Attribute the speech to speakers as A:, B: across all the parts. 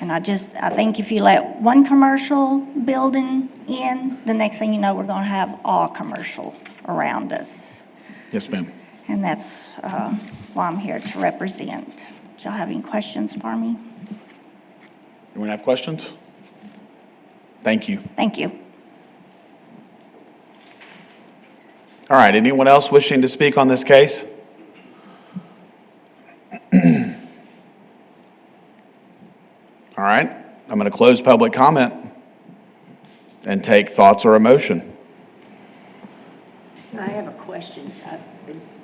A: And I just, I think if you let one commercial building in, the next thing you know, we're gonna have all commercial around us.
B: Yes, ma'am.
A: And that's uh, why I'm here to represent. Do y'all have any questions for me?
B: Anyone have questions? Thank you.
A: Thank you.
B: All right, anyone else wishing to speak on this case? All right, I'm going to close public comment and take thoughts or emotion.
C: I have a question.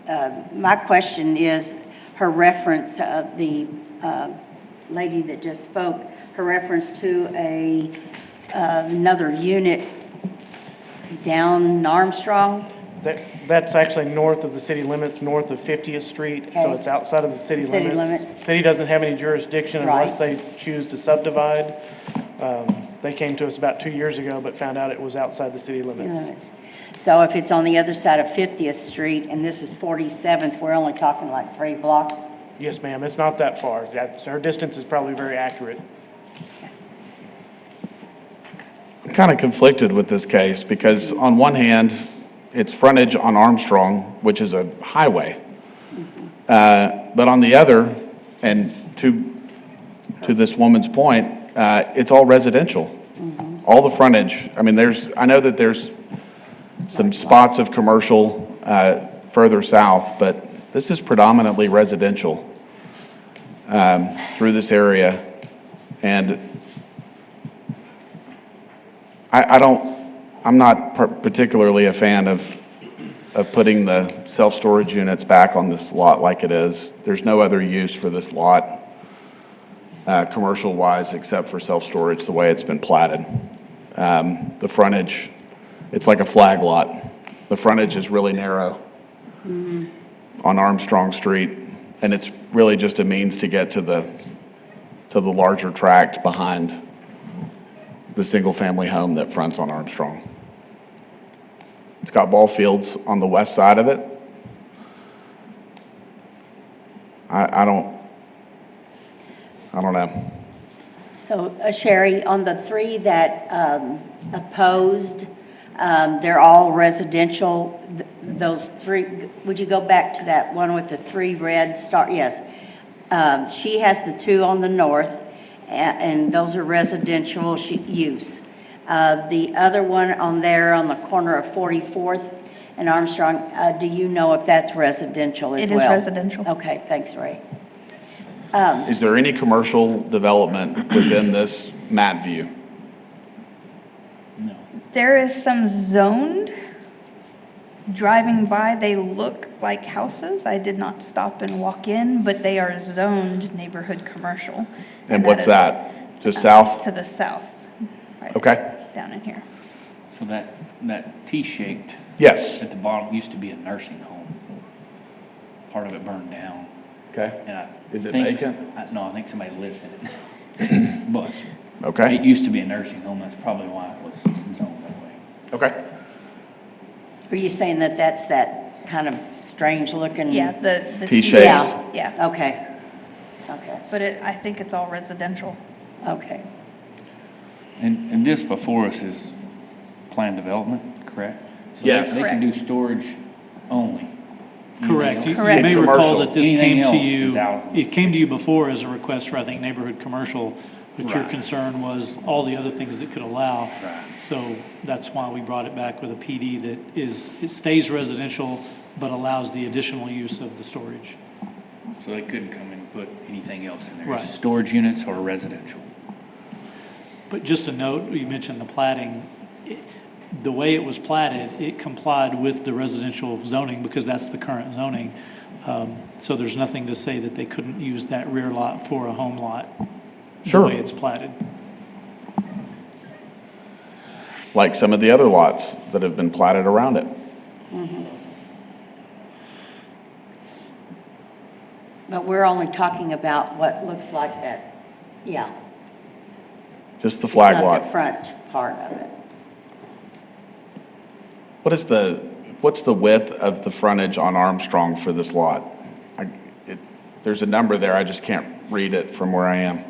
C: Uh, My question is, her reference of the uh, lady that just spoke, her reference to a, uh, another unit down Armstrong?
D: That, that's actually north of the city limits, north of 50th Street, so
C: Okay.
D: it's outside of the city
C: City
D: limits.
C: limits.
D: City doesn't have any jurisdiction unless
C: Right.
D: they choose to subdivide. Um, They came to us about two years ago, but found out it was outside the city limits.
C: units. So if Uh, it's on the other side of 50th Street and this is 47th, we're only talking like three blocks?
D: Yes, ma'am, it's not that far. That- Her distance is probably very accurate.
B: I'm kind of conflicted with this case because on one hand, it's frontage on Armstrong, which is a highway. Uh, But on the other, and to, to this woman's point, uh, it's all residential. All the frontage, I mean, there's, I know that there's some spots of commercial uh, further south, but this is predominantly residential um, through this area. And I, I don't, I'm not par- particularly a fan of, of putting the self-storage units back on this lot like it is. There's no other use for this lot, uh, commercial-wise, except for self-storage, the way it's been platted. Um, the frontage, it's like a flag lot. The frontage is really narrow on Armstrong Street, and it's really just a means to get to the, to the larger tract behind the single-family home that fronts on Armstrong. It's got ball fields on the west side of it. I, I don't, I don't know.
C: So uh, Sherry, on the three that um, opposed, um, they're all residential, Th- those three, would you go back to that one with the three red star, yes. Um, She has the two on the north, a- and those are residential sh- use. Uh, The other one on there on the corner of 44th and Armstrong, uh, do you know if that's residential as
E: It is
C: well?
E: residential.
C: Okay, thanks, Ray.
B: Is there any commercial development within this map view?
E: There is some zoned. Driving by, they look like houses. I did not stop and walk in, but they are zoned neighborhood commercial.
B: And what's
E: is,
B: that? Just
E: uh,
B: south?
E: To the south. right
B: Okay.
E: Down in here.
F: So that, that T-shaped
B: Yes.
F: at the bottom used to be a nursing home. Part of it burned down,
B: Okay.
F: and I
B: Is it
F: think-
B: vacant?
F: I- No, I think somebody lives in it. But it
B: Okay.
F: used to be a nursing home, that's probably why it was zoned that way.
B: Okay.
C: Are you saying that that's that kind of strange-looking?
E: Yeah, the. the
B: T
E: T-
B: shapes.
C: Yeah.
E: Yeah,
C: Okay, okay,
E: but it, I think it's all residential.
C: okay.
F: And, and this before us is planned development, correct? So they-
B: Yes.
F: They can do storage only.
G: Correct. You- You
E: Correct.
G: may recall
B: Commercial.
G: that this
F: Anything
G: came to
F: else is
G: you,
F: out.
G: it came to you before as a request for, I think, neighborhood commercial, but your
F: Right.
G: concern was all the other things that could allow.
F: Right.
G: So that's why we brought it back with a PD that is, it stays residential, but allows the additional use of the storage.
F: So they couldn't come and put anything else in there.
G: Right.
F: Storage units or residential.
G: But just a note, you mentioned the plating. It- The way it was platted, it complied with the residential zoning because that's the current zoning. Um, So there's nothing to say that they couldn't use that rear lot for a home lot.
B: Sure.
G: The way it's platted.
B: Like some of the other lots that have been platted around it.
C: But we're only talking about what looks like that, yeah.
B: Just the
C: it's
B: flag
C: not
B: lot.
C: The front part of it.
B: What is the, what's the width of the frontage on Armstrong for this lot? I- it- There's a number there, I just can't read it from where I am.